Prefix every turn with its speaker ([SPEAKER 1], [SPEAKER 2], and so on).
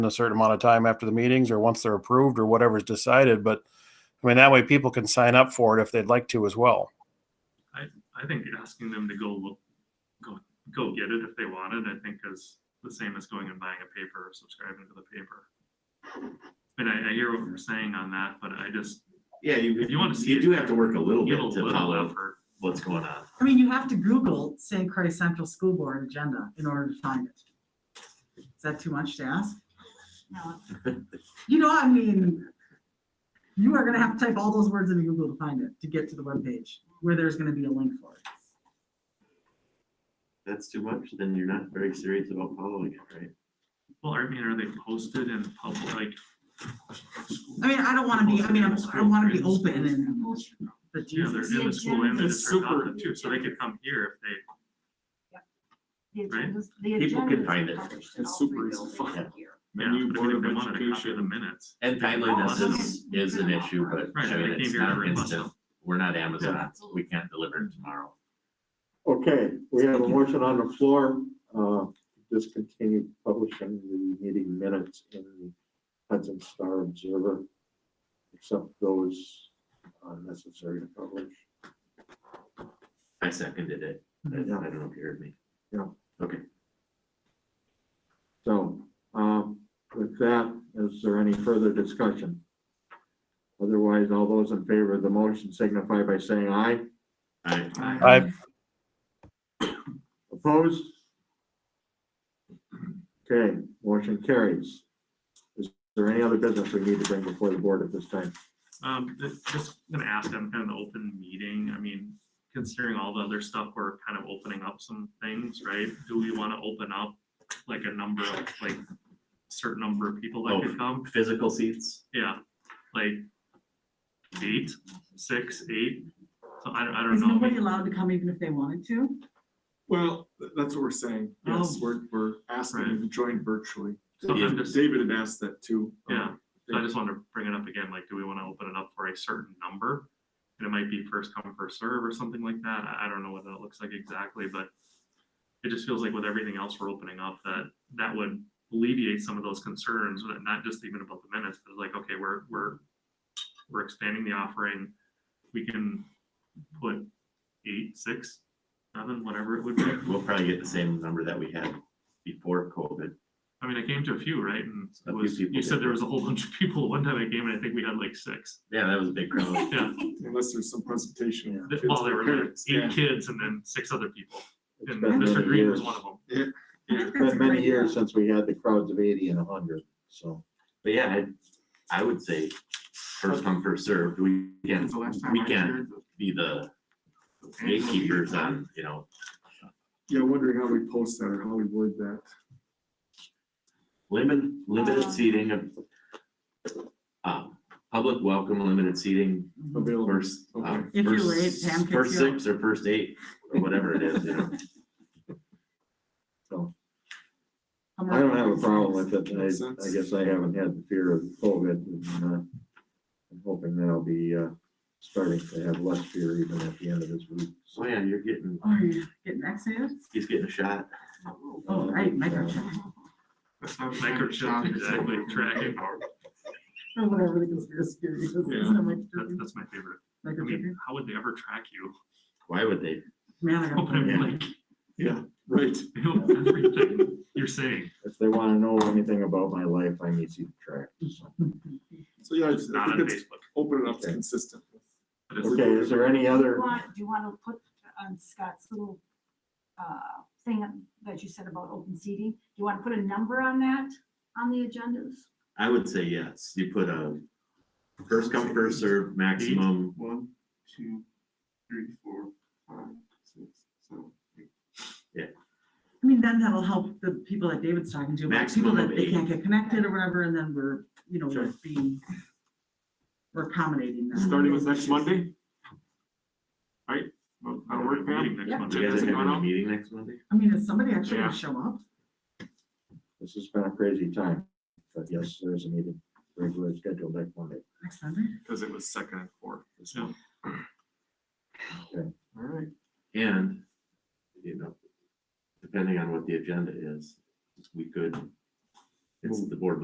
[SPEAKER 1] in a certain amount of time after the meetings or once they're approved or whatever's decided. But I mean, that way people can sign up for it if they'd like to as well.
[SPEAKER 2] I think asking them to go look, go, go get it if they want it, I think is the same as going and buying a paper or subscribing to the paper. And I, I hear what you're saying on that, but I just
[SPEAKER 3] Yeah, you,
[SPEAKER 2] If you wanna see
[SPEAKER 3] you
[SPEAKER 2] it,
[SPEAKER 3] do have to work a little
[SPEAKER 2] give
[SPEAKER 3] bit
[SPEAKER 2] a
[SPEAKER 3] to
[SPEAKER 2] little
[SPEAKER 3] follow
[SPEAKER 2] effort.
[SPEAKER 3] what's going on.
[SPEAKER 4] I mean, you have to Google St. Croix Central School Board agenda in order to find it. Is that too much to ask? No. You know, I mean, you are gonna have to type all those words into Google to find it, to get to the webpage, where there's gonna be a link for it.
[SPEAKER 3] That's too much, then you're not very serious about following it, right?
[SPEAKER 2] Well, I mean, are they posted in public, like?
[SPEAKER 4] I mean, I don't wanna be, I mean, I'm- I wanna be open and, but
[SPEAKER 2] Yeah, they're
[SPEAKER 4] Jesus.
[SPEAKER 2] in the school and they're
[SPEAKER 5] It's
[SPEAKER 2] turned off
[SPEAKER 5] super-
[SPEAKER 2] too, so they could come here if they.
[SPEAKER 5] The
[SPEAKER 2] Right?
[SPEAKER 5] agendas, the
[SPEAKER 3] People
[SPEAKER 5] agendas
[SPEAKER 3] can
[SPEAKER 5] are
[SPEAKER 3] find it.
[SPEAKER 5] published in
[SPEAKER 6] It's
[SPEAKER 5] all three
[SPEAKER 6] super easy to
[SPEAKER 5] buildings
[SPEAKER 6] find.
[SPEAKER 5] here.
[SPEAKER 2] Yeah,
[SPEAKER 6] Menu
[SPEAKER 2] but
[SPEAKER 6] Board
[SPEAKER 2] if
[SPEAKER 6] of
[SPEAKER 2] they wanted a copy of the
[SPEAKER 6] Education.
[SPEAKER 2] minutes.
[SPEAKER 3] And timeliness is, is an issue, but
[SPEAKER 2] Right,
[SPEAKER 3] I
[SPEAKER 2] they
[SPEAKER 3] mean,
[SPEAKER 2] came
[SPEAKER 3] it's
[SPEAKER 2] here to
[SPEAKER 3] not
[SPEAKER 2] request
[SPEAKER 3] instant.
[SPEAKER 2] them.
[SPEAKER 3] We're not Amazon, we can't deliver it tomorrow.
[SPEAKER 7] Okay, we have a motion on the floor, uh, discontinue publishing the meeting minutes in the Hudson Star Observer, except those uh, necessary to publish.
[SPEAKER 3] I seconded it. I I
[SPEAKER 2] Mm-hmm.
[SPEAKER 3] don't know if you heard me.
[SPEAKER 7] So, um, with that, is there any further discussion? Otherwise, all those in favor of the motion signify by saying aye.
[SPEAKER 3] I,
[SPEAKER 1] I,
[SPEAKER 7] Opposed? Okay, motion carries. Is there any other business we need to bring before the board at this time?
[SPEAKER 2] Um, th- just gonna ask, I'm kind of an open meeting, I mean, considering all the other stuff, we're kind of opening up some things, right? Do we want to open up like a number of, like, certain number of people that could come?
[SPEAKER 3] physical seats,
[SPEAKER 2] Yeah, like eight, six, eight, so I don't, I don't
[SPEAKER 4] Is
[SPEAKER 2] know.
[SPEAKER 4] nobody allowed to come even if they wanted to?
[SPEAKER 6] Well, th- that's what we're saying. Yes,
[SPEAKER 4] Oh.
[SPEAKER 6] we're, we're asking them to join virtually.
[SPEAKER 2] So I'm just-
[SPEAKER 6] David had asked that too. um,
[SPEAKER 2] Yeah, So I just wanted to bring it up again, like, do we want to open it up for a certain number? And it might be first come, first serve or something like that. I, I don't know what that looks like exactly, but it just feels like with everything else we're opening up, that, that would alleviate some of those concerns, but not just even about the minutes, but like, okay, we're, we're, we're expanding the offering. We can put eight, six, seven, whatever it would be.
[SPEAKER 3] we'll probably get the same number that we had before COVID.
[SPEAKER 2] I mean, I came to a few, right? And
[SPEAKER 3] A
[SPEAKER 2] it
[SPEAKER 3] few
[SPEAKER 2] was,
[SPEAKER 3] people
[SPEAKER 2] you said
[SPEAKER 3] did.
[SPEAKER 2] there was a whole bunch of people one time I came and I think we had like six.
[SPEAKER 3] Yeah, that was a big crowd.
[SPEAKER 2] Yeah.
[SPEAKER 6] Unless there's some presentation. of
[SPEAKER 2] Th-
[SPEAKER 6] kids
[SPEAKER 2] Well, there were
[SPEAKER 6] or
[SPEAKER 2] like
[SPEAKER 6] parents, yeah.
[SPEAKER 2] eight kids and then six other people.
[SPEAKER 7] It's
[SPEAKER 2] And
[SPEAKER 7] been
[SPEAKER 2] Mr.
[SPEAKER 7] many
[SPEAKER 2] Green
[SPEAKER 7] years.
[SPEAKER 2] was one of them.
[SPEAKER 4] I think
[SPEAKER 7] It's
[SPEAKER 4] that's a
[SPEAKER 7] Been many
[SPEAKER 4] great idea.
[SPEAKER 7] years since we had the crowds of eighty and hundred, so.
[SPEAKER 3] But yeah, I, I would say first come, first served, we can, we can be the gatekeepers on, you know,
[SPEAKER 6] Yeah, wondering how we post that or how we word that.
[SPEAKER 3] limit, limited
[SPEAKER 5] Uh.
[SPEAKER 3] seating of um, public welcome, limited seating,
[SPEAKER 6] Available.
[SPEAKER 3] first, um,
[SPEAKER 4] If you're
[SPEAKER 3] first-
[SPEAKER 4] late, Pam can
[SPEAKER 3] First
[SPEAKER 4] fill.
[SPEAKER 3] six or first eight, or whatever it is, you know.
[SPEAKER 4] I'm
[SPEAKER 7] I don't
[SPEAKER 4] not-
[SPEAKER 7] have a problem with it.
[SPEAKER 6] Makes
[SPEAKER 7] I, I
[SPEAKER 6] sense.
[SPEAKER 7] guess I haven't had the fear of COVID. and, uh, I'm hoping that I'll be, uh, starting to have less fear even at the end of this week.
[SPEAKER 3] So Oh, yeah, you're getting,
[SPEAKER 4] Are you getting vaccinated?
[SPEAKER 3] he's getting a shot.
[SPEAKER 4] Oh, right, microchip,
[SPEAKER 2] Microchip, exactly, tracking.
[SPEAKER 4] or Oh, whatever the conspiracy theory is.
[SPEAKER 6] Yeah.
[SPEAKER 4] Isn't it
[SPEAKER 2] That's,
[SPEAKER 4] microchip?
[SPEAKER 2] that's my favorite. I
[SPEAKER 4] Microchip?
[SPEAKER 2] mean, how would they ever track you?
[SPEAKER 3] Why would they?
[SPEAKER 4] Man, I gotta
[SPEAKER 2] Open
[SPEAKER 4] find
[SPEAKER 2] it
[SPEAKER 4] it.
[SPEAKER 2] like,
[SPEAKER 6] Yeah, right.
[SPEAKER 2] they know everything you're saying.
[SPEAKER 7] If they wanna know anything about my life, I'm easy to track. so.
[SPEAKER 6] So yeah, I
[SPEAKER 2] It's not
[SPEAKER 6] I
[SPEAKER 2] on
[SPEAKER 6] think it's
[SPEAKER 2] Facebook.
[SPEAKER 6] open it up, it's
[SPEAKER 7] Okay.
[SPEAKER 6] consistent.
[SPEAKER 2] but it's-
[SPEAKER 7] Okay, is there any
[SPEAKER 5] Do you
[SPEAKER 7] other?
[SPEAKER 5] want, do you want to put on Scott's little uh, thing that you said about open seating? Do you want to put a number on that, on the agendas?
[SPEAKER 3] I would say yes, you put a first come, first served maximum,
[SPEAKER 6] One, two, three, four, five, six, seven.
[SPEAKER 4] I mean, then that'll help the people that David's talking to, like people
[SPEAKER 3] Maximum
[SPEAKER 4] that
[SPEAKER 3] of
[SPEAKER 4] they
[SPEAKER 3] eight.
[SPEAKER 4] can't get connected or whatever, and then we're, you know,
[SPEAKER 6] Sure.
[SPEAKER 4] we're being, we're accommodating them.
[SPEAKER 6] Starting with next Monday? Right? Well,
[SPEAKER 2] I
[SPEAKER 6] That'll
[SPEAKER 2] don't
[SPEAKER 6] work,
[SPEAKER 2] know, meeting next
[SPEAKER 4] Yeah.
[SPEAKER 6] man?
[SPEAKER 3] do you
[SPEAKER 2] Monday.
[SPEAKER 3] guys
[SPEAKER 6] Doesn't
[SPEAKER 3] have
[SPEAKER 6] matter.
[SPEAKER 3] a meeting next Monday?
[SPEAKER 4] I mean, is somebody actually
[SPEAKER 6] Yeah.
[SPEAKER 4] gonna show up?
[SPEAKER 7] This has been a crazy time, but yes, there is a meeting regularly scheduled next Monday.
[SPEAKER 4] Next Monday?
[SPEAKER 6] Because it was second and fourth. this
[SPEAKER 2] Yeah.
[SPEAKER 6] one.
[SPEAKER 7] Okay.
[SPEAKER 6] All right.
[SPEAKER 3] And, you know, depending on what the agenda is, we could, it's the board